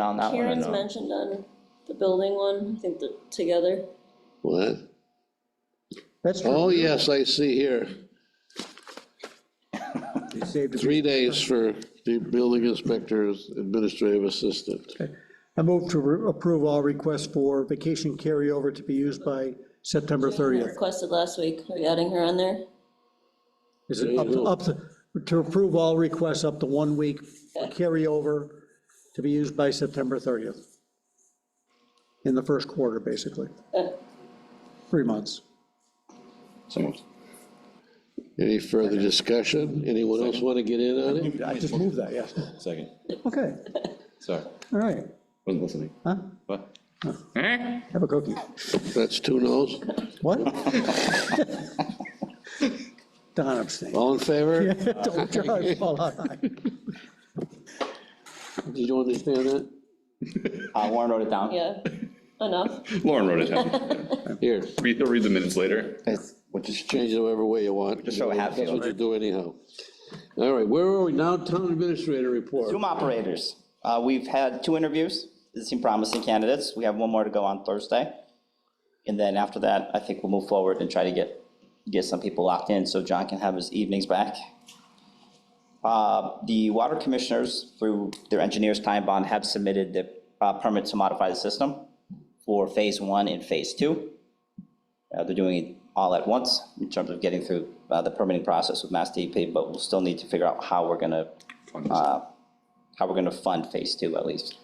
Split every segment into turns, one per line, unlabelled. on that one or
Karen's
no?
mentioned on the building one, I think that together,
What?
That's
Oh,
true.
yes, I see here,
You saved a-
three days for the building inspector's administrative assistant.
I move to re- approve all requests for vacation carryover to be used by September 30th.
requested last week, are you adding her on there?
Is it up to, up to, to approve all requests up to one week for carryover to be used by September 30th? In the first quarter, basically,
Uh,
three months.
Any further discussion? Anyone else want to get in on it?
I just moved that, yes.
Second,
Okay,
sorry,
all right,
wasn't listening.
huh?
What?
Have a cookie.
That's two noes.
What? Don abstained.
All in favor?
Don't drive while I-
Did you understand that?
Uh, Warren wrote it down.
Yeah, enough,
Lauren wrote it down.
Here,
Read, he'll read the minutes later.
It's, which is,
just change it whatever way you want.
Just so it happens,
That's what you
right?
do anyhow. All right, where are we now? Town administrator report.
Zoom operators. Uh, We've had two interviews. They seem promising candidates. We have one more to go on Thursday. And then after that, I think we'll move forward and try to get, get some people locked in so John can have his evenings back. Uh, The water commissioners, through their engineer's time bond, have submitted the uh, permit to modify the system for phase one and phase two. Uh, They're doing it all at once in terms of getting through uh, the permitting process with Mass DEP, but we'll still need to figure out how we're going to how we're gonna fund phase two at least,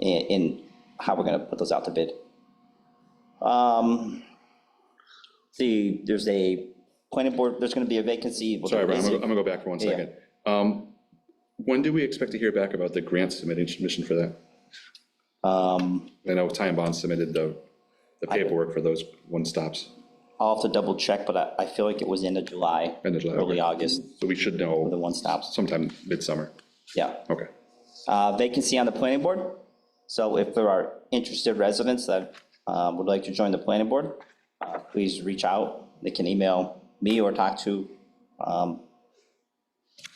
and, and how we're gonna put those out to bid. Um, See, there's a planning board, there's gonna be a vacancy. we'll
Sorry, Brian, I'm
visit-
gonna- I'm gonna go back for one
Yeah.
second. Um, When do we expect to hear back about the grant submitting submission for that?
Um,
I know Time Bond submitted the, the paperwork for those one stops,
I'll have to double check, but I, I feel like it was end of July,
End of July, okay.
early August,
so we should
the
know
one stops,
sometime midsummer.
yeah.
Okay,
Uh, vacancy on the planning board. So if there are interested residents that uh, would like to join the planning board, uh, please reach out. They can email me or talk to um,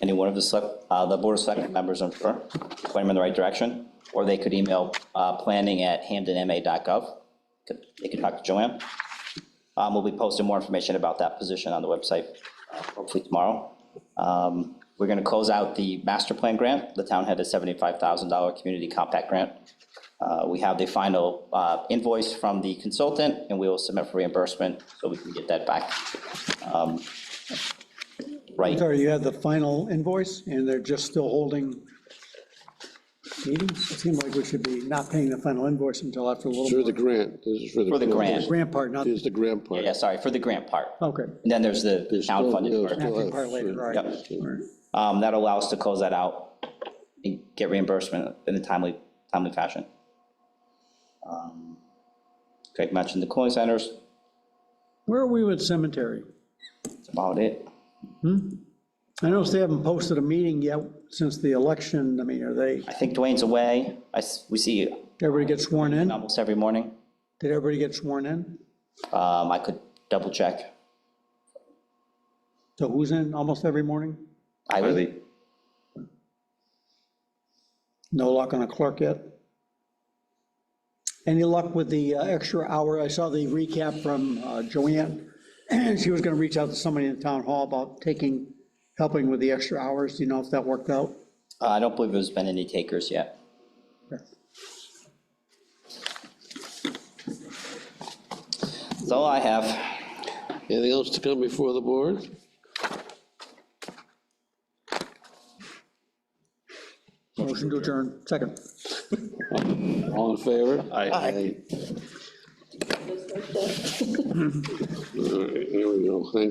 any one of the, select- uh, the board of select members, I'm sure, point them in the right direction. Or they could email uh, planning at planning@hamdenma.gov. Could- They can talk to Joanne. Um, We'll be posting more information about that position on the website, uh, hopefully tomorrow. Um, We're going to close out the master plan grant. The town had a $75,000 community compact grant. Uh, We have the final uh, invoice from the consultant, and we will submit for reimbursement, so we can get that back. Um, Right,
Sorry, you had the final invoice, and they're just still holding meetings? It seemed like we should be not paying the final invoice until after a
For
little.
the grant, this is for the.
For the grant.
Grant part, not,
Here's the grant part.
yeah, sorry, for the grant part.
okay.
And then there's the
There's
town
still-
funded
there's
part.
still
Acting
a-
part later, all right.
Yep.
All right.
Um, That'll allow us to close that out and get reimbursement in a timely, timely fashion. Um, Greg mentioned the cooling centers,
Where are we with cemetery?
that's about it.
I noticed they haven't posted a meeting yet since the election. I mean, are they,
I think Dwayne's away. I, s- we see you
everybody get sworn in?
almost every morning.
Did everybody get sworn in?
Um, I could double check.
So who's in almost every morning?
I
Are
would,
they-
No luck on the clerk yet? Any luck with the uh, extra hour? I saw the recap from uh, Joanne. She was going to reach out to somebody in the town hall about taking, helping with the extra hours. Do you know if that worked out?
Uh, I don't believe there's been any takers yet. That's all I have.
Anything else to come before the board?
Motion to adjourn, second.
All in favor?
Aye.
All right, There we go, thank